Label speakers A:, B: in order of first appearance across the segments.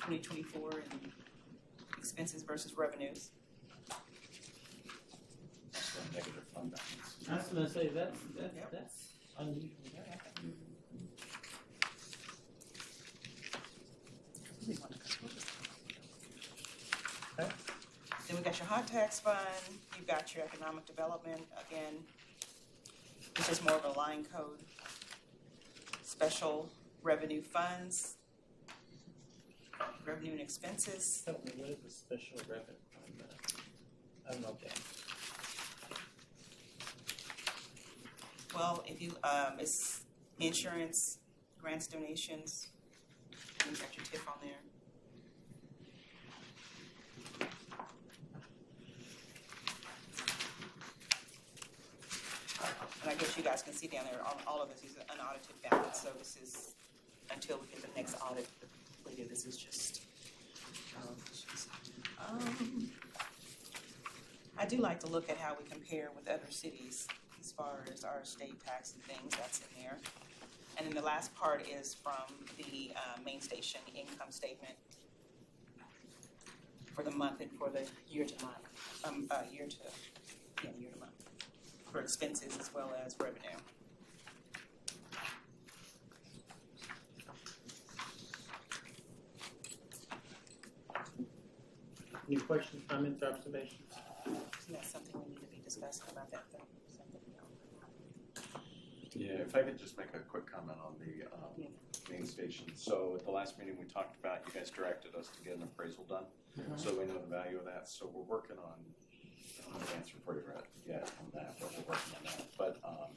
A: twenty twenty-four and expenses versus revenues.
B: That's the negative fund balance.
C: I was gonna say, that's, that's,
A: Yep.
C: that's unusual.
A: Then we got your hot tax fund, you've got your economic development, again, which is more of a line code. Special revenue funds, revenue and expenses,
C: I don't know what is the special revenue on that. I don't know, Dan.
A: well, if you, um, it's insurance, grants, donations, and you've got your tip on there. And I guess you guys can see down there, all, all of this is an unaudited balance, so this is, until we get the next audit completed, this is just. um, just, um, I do like to look at how we compare with other cities as far as our state tax and things, that's in there. And then the last part is from the, uh, main station income statement for the month and for the year to month, um, uh, year to, yeah, year to month for expenses as well as revenue.
C: Any questions, comments, or observations?
A: Isn't that something we need to be discussing about that though? Something else.
B: Yeah, if I could just make a quick comment on the um, main station. So at the last meeting, we talked about, you guys directed us to get an appraisal done. So we know the value of that, so we're working on, I don't have an answer for you right yet on that, but we're working on that. But um,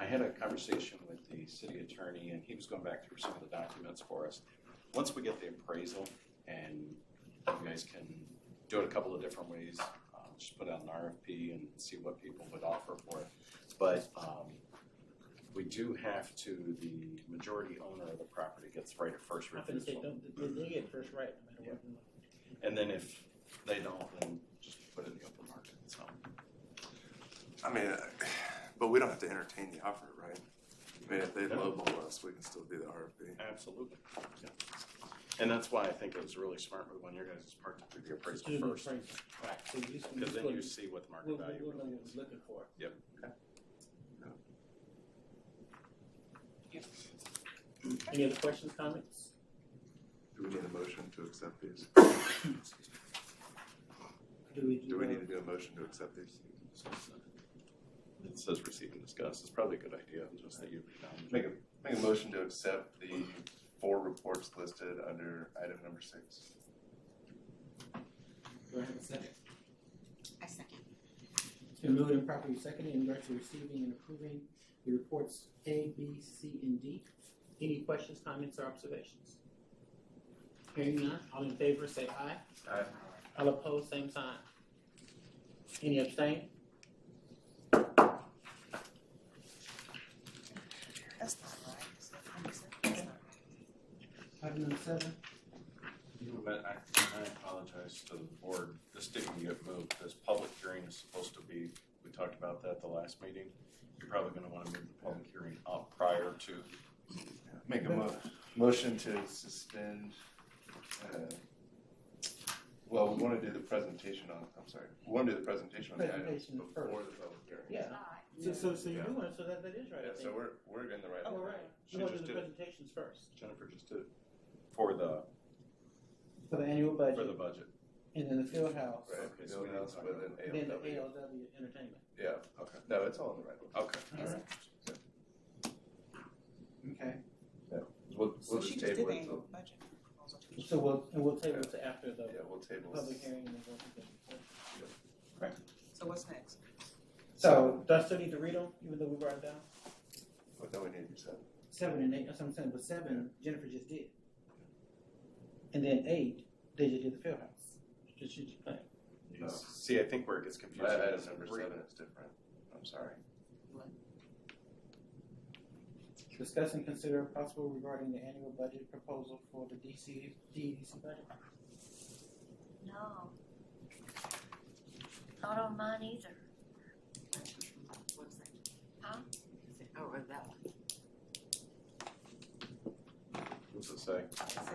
B: I had a conversation with the city attorney, and he was going back through some of the documents for us. Once we get the appraisal, and you guys can do it a couple of different ways, um, just put out an RFP and see what people would offer for it. But um, we do have to, the majority owner of the property gets right of first
C: I'm gonna say,
B: refusal.
C: don't, they- they get first right no matter what.
B: And then if they don't, then just put it in the open market, so.
D: I mean, uh, but we don't have to entertain the offer, right? I mean, if they lowball us, we can still do the RFP.
B: Absolutely. yeah. And that's why I think it was really smart with one of your guys' part to do the
C: Just
B: appraisal
C: do the
B: first,
C: appraisal. Right, so you just.
B: because
C: just
B: then
C: go-
B: you see what the
C: We'll,
B: market
C: we'll
B: value
C: know
B: really
C: what
B: is.
C: we're looking for. Any other questions, comments?
D: Do we need a motion to accept these?
C: Do we do?
D: Do we need
C: uh,
D: to do a motion to accept these?
B: It says receive and discuss, it's probably a good idea, just that you.
D: Make a, make a motion to accept the four reports listed under item number six.
C: Do I have a second?
E: I second.
C: It's been moved and properly seconded in regards to receiving and approving the reports A, B, C, and D. Any questions, comments, or observations? Hearing none, all in favor say aye.
D: Aye.
C: All opposed, same sign. Any abstain?
A: That's not right. is it? Let me see. That's not right.
C: Item number seven.
B: But I, I apologize to the board, this didn't get moved, this public hearing is supposed to be, we talked about that the last meeting. You're probably gonna wanna move the public hearing up prior to,
D: Make a mo- motion to suspend, uh, well, we wanna do the presentation on, I'm sorry, we wanna do the presentation on the items
C: Presentation first.
D: before the public hearing.
C: Yeah,
E: Aye.
C: so, so, so you
D: Yeah.
C: do want, so that, that is right,
D: Yeah,
C: I
D: so
C: think.
D: we're, we're in the right.
C: Oh, we're right.
B: She
C: You want to
B: just
C: do the
B: did it.
C: presentations first.
B: Jennifer just did, for the,
C: For the annual
B: for
C: budget,
B: the budget.
C: and then the field house,
D: Right,
B: Okay, so we
D: build
B: need to
D: house
B: talk
D: with
B: about
D: an
C: then the
D: ALW.
C: ALW entertainment.
D: Yeah,
B: Okay.
D: no, it's all in the right one.
B: Okay.
C: Alright. Okay,
D: We'll,
A: So
D: we'll
A: she
D: just
A: just did
D: table
A: the
D: it till,
A: annual budget proposal.
C: so we'll, and we'll table it to after the
D: yeah, we'll table
C: public
D: it.
C: hearing and the presentation.
A: So what's next?
C: So, do I still need to read them, even though we brought it down?
D: But then we need to set.
C: Seven and eight, that's what I'm saying, but seven, Jennifer just did. And then eight, they just did the field house, just, she just playing.
D: No.
B: See, I think where it gets confusing
D: Item
B: is
D: number
B: re-
D: seven is different, I'm sorry.
C: Discuss and consider possible regarding the annual budget proposal for the DC, DEDC E budget.
E: No. Not on mine either. Huh?
B: What's it say?
A: It says